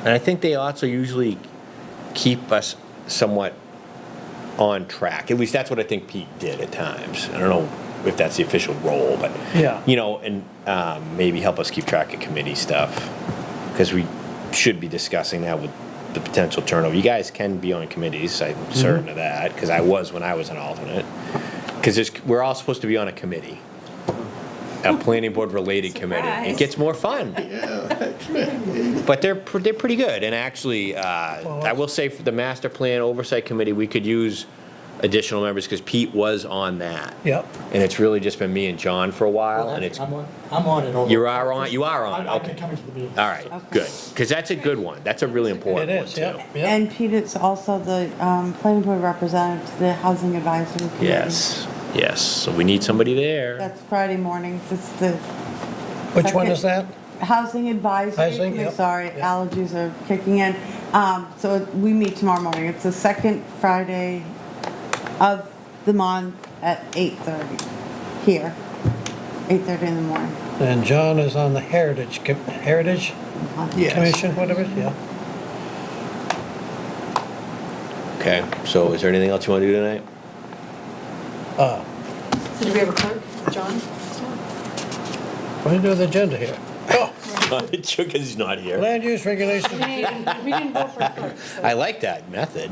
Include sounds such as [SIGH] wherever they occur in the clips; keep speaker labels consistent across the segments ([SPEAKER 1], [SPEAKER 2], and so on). [SPEAKER 1] And I think they also usually keep us somewhat on track. At least that's what I think Pete did at times. I don't know if that's the official role, but
[SPEAKER 2] Yeah.
[SPEAKER 1] you know, and um, maybe help us keep track of committee stuff because we should be discussing that with the potential turnover. You guys can be on committees. I'm certain of that because I was when I was an alternate. Because we're all supposed to be on a committee, a planning board related committee. It
[SPEAKER 3] Surprise.
[SPEAKER 1] gets more fun. But they're, pr- they're pretty good, and actually, uh, I will say for the master plan oversight committee, we could use additional members, because Pete was on that.
[SPEAKER 2] Yep.
[SPEAKER 1] And it's really just been me and John for a while, and it's,
[SPEAKER 4] I'm on, I'm on it over.
[SPEAKER 1] you are on, you are
[SPEAKER 4] I've
[SPEAKER 1] on, it,
[SPEAKER 4] I've been
[SPEAKER 1] okay.
[SPEAKER 4] coming to the meeting.
[SPEAKER 1] All right, good, because that's a good one, that's a really
[SPEAKER 2] It
[SPEAKER 1] important one,
[SPEAKER 2] is,
[SPEAKER 1] too.
[SPEAKER 2] yep, yep.
[SPEAKER 5] And Pete is also the um, planning board representative to the housing advisory committee.
[SPEAKER 1] Yes, yes, so we need somebody there.
[SPEAKER 5] That's Friday mornings, it's the
[SPEAKER 2] Which one is that?
[SPEAKER 5] housing advisory
[SPEAKER 2] Housing,
[SPEAKER 5] committee,
[SPEAKER 2] yep,
[SPEAKER 5] sorry,
[SPEAKER 2] yep.
[SPEAKER 5] allergies are kicking in. Um, So we meet tomorrow morning, it's the second Friday of the month at 8:30 here, 8:30 in the morning.
[SPEAKER 2] And John is on the Heritage, Com- Heritage Commission, whatever, yeah.
[SPEAKER 1] Okay, so is there anything else you want to do tonight? [LAUGHS]
[SPEAKER 2] Uh,
[SPEAKER 3] So do we have a clerk, John?
[SPEAKER 2] What do you do with the agenda here? Oh,
[SPEAKER 1] Chugga's not here.
[SPEAKER 2] land use regulation.
[SPEAKER 3] We didn't vote for a clerk. so-
[SPEAKER 1] I like that method.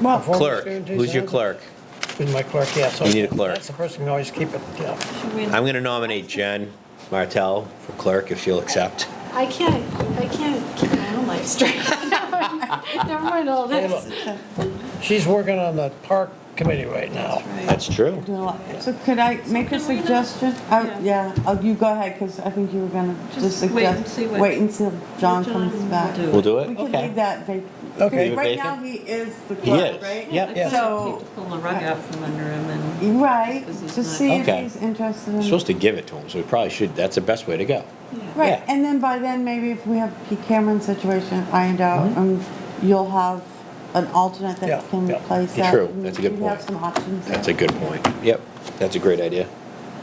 [SPEAKER 2] Well,
[SPEAKER 1] Clerk, who's your clerk?
[SPEAKER 2] Who's my clerk, yeah, so.
[SPEAKER 1] You need a clerk.
[SPEAKER 2] That's the person who can always keep it, yeah.
[SPEAKER 3] Should we-
[SPEAKER 1] I'm going to nominate Jen Martell for clerk, if she'll accept.
[SPEAKER 3] I can't, I can't keep my own life straight. [LAUGHS] Never mind all this.
[SPEAKER 2] She's working on the park committee right now.
[SPEAKER 1] That's true.
[SPEAKER 5] Doing a lot. So could I make a
[SPEAKER 3] Can we not-
[SPEAKER 5] suggestion? Uh,
[SPEAKER 3] Yeah.
[SPEAKER 5] Yeah, Oh, you go ahead, because I think you were gonna just
[SPEAKER 3] Just wait and
[SPEAKER 5] suggest,
[SPEAKER 3] see what-
[SPEAKER 5] wait until
[SPEAKER 3] John
[SPEAKER 5] John comes
[SPEAKER 3] will
[SPEAKER 5] back.
[SPEAKER 3] do it.
[SPEAKER 1] We'll do
[SPEAKER 5] We
[SPEAKER 1] it?
[SPEAKER 5] can leave
[SPEAKER 1] Okay.
[SPEAKER 5] that vacant.
[SPEAKER 2] Okay.
[SPEAKER 1] Leave it
[SPEAKER 5] Right now,
[SPEAKER 1] vacant?
[SPEAKER 5] he is the
[SPEAKER 1] He
[SPEAKER 5] clerk,
[SPEAKER 1] is,
[SPEAKER 5] right?
[SPEAKER 1] yep.
[SPEAKER 2] Yeah.
[SPEAKER 5] So,
[SPEAKER 6] Pull the rug out from under him and.
[SPEAKER 5] right,
[SPEAKER 6] This is
[SPEAKER 5] just
[SPEAKER 6] not-
[SPEAKER 5] see if
[SPEAKER 1] Okay.
[SPEAKER 5] he's interested
[SPEAKER 1] We're
[SPEAKER 5] in.
[SPEAKER 1] supposed to give it to him, so we probably should. That's the best way to go.
[SPEAKER 5] Right,
[SPEAKER 1] yeah.
[SPEAKER 5] and then by then, maybe if we have Pete Cameron's situation ironed out,
[SPEAKER 1] Mm-hmm.
[SPEAKER 5] and you'll have an alternate
[SPEAKER 2] Yeah,
[SPEAKER 5] that can
[SPEAKER 2] yeah.
[SPEAKER 5] replace
[SPEAKER 1] Yeah,
[SPEAKER 5] that.
[SPEAKER 1] true.
[SPEAKER 5] and
[SPEAKER 1] That's a good
[SPEAKER 5] We have
[SPEAKER 1] point.
[SPEAKER 5] some options.
[SPEAKER 1] That's a
[SPEAKER 5] there.
[SPEAKER 1] good point. Yep, that's a great idea.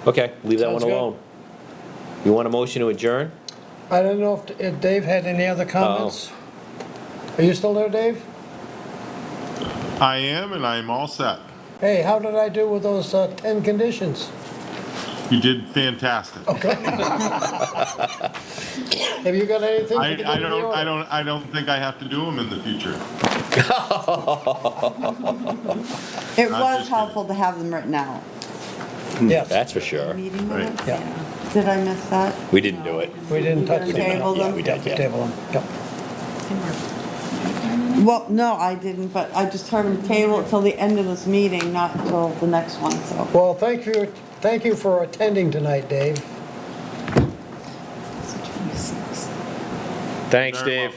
[SPEAKER 1] Okay, leave that one
[SPEAKER 2] Sounds good.
[SPEAKER 1] alone. You want a motion to adjourn?
[SPEAKER 2] I don't know if- if Dave had any other comments?
[SPEAKER 1] Oh.
[SPEAKER 2] Are you still there, Dave?
[SPEAKER 7] I am, and I am all set.
[SPEAKER 2] Hey, how did I do with those uh, 10 conditions?
[SPEAKER 7] You did fantastic.
[SPEAKER 2] Have you got anything
[SPEAKER 7] I,
[SPEAKER 2] to get
[SPEAKER 7] I
[SPEAKER 2] in the
[SPEAKER 7] don't, I
[SPEAKER 2] order?
[SPEAKER 7] don't, I don't think I have to do them in the future.
[SPEAKER 5] It
[SPEAKER 7] I'm
[SPEAKER 5] was
[SPEAKER 7] just gonna-
[SPEAKER 5] helpful to have them written out.
[SPEAKER 2] Yes,
[SPEAKER 1] That's for sure.
[SPEAKER 5] Meeting
[SPEAKER 7] Right.
[SPEAKER 5] minutes?
[SPEAKER 2] Yeah.
[SPEAKER 5] Did I miss that?
[SPEAKER 1] We didn't do it.
[SPEAKER 2] we didn't touch
[SPEAKER 5] We
[SPEAKER 2] them.
[SPEAKER 5] didn't table
[SPEAKER 1] Yeah,
[SPEAKER 5] them?
[SPEAKER 1] we did, yeah.
[SPEAKER 2] Table them, yep.
[SPEAKER 5] Well, no, I didn't, but I just heard him table it till the end of this meeting, not till the next one, so.
[SPEAKER 2] Well, thank you, thank you for attending tonight, Dave.
[SPEAKER 1] Thanks,
[SPEAKER 7] Very
[SPEAKER 1] Dave.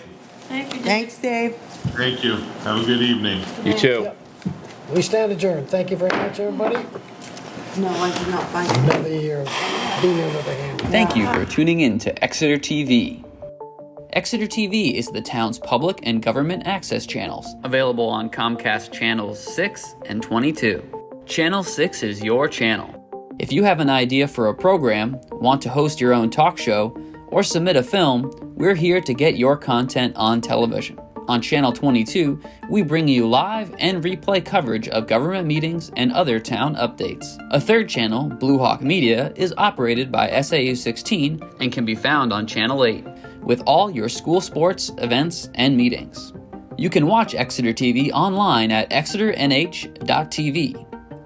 [SPEAKER 6] Thank you, Dave.
[SPEAKER 5] Thanks, Dave.
[SPEAKER 7] Thank you. Have a good evening.
[SPEAKER 1] You too.
[SPEAKER 2] Yep. We stand adjourned. Thank you very much, everybody.
[SPEAKER 5] No, I did not find it.
[SPEAKER 2] Another year of being uh, under the hand.
[SPEAKER 8] Thank you for tuning in to Exeter TV. Exeter TV is the town's public and government access channels, available on Comcast Channels 6 and 22. Channel 6 is your channel. If you have an idea for a program, want to host your own talk show, or submit a film, we're here to get your content on television. On Channel 22, we bring you live and replay coverage of government meetings and other town updates. A third channel, Blue Hawk Media, is operated by SAU 16 and can be found on Channel 8 with all your school sports, events, and meetings. You can watch Exeter TV online at exeternh.tv,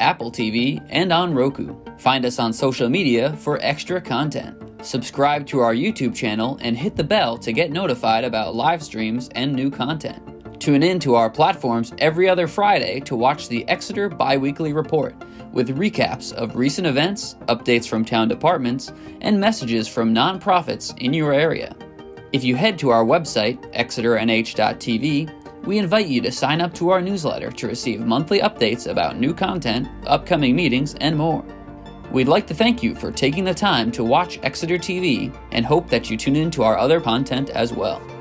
[SPEAKER 8] Apple TV, and on Roku. Find us on social media for extra content. Subscribe to our YouTube channel and hit the bell to get notified about live streams and new content. Tune in to our platforms every other Friday to watch the Exeter Biweekly Report with recaps of recent events, updates from town departments, and messages from nonprofits in your area. If you head to our website, exeternh.tv, we invite you to sign up to our newsletter to receive monthly updates about new content, upcoming meetings, and more. We'd like to thank you for taking the time to watch Exeter TV and hope that you tune in to our other content as well.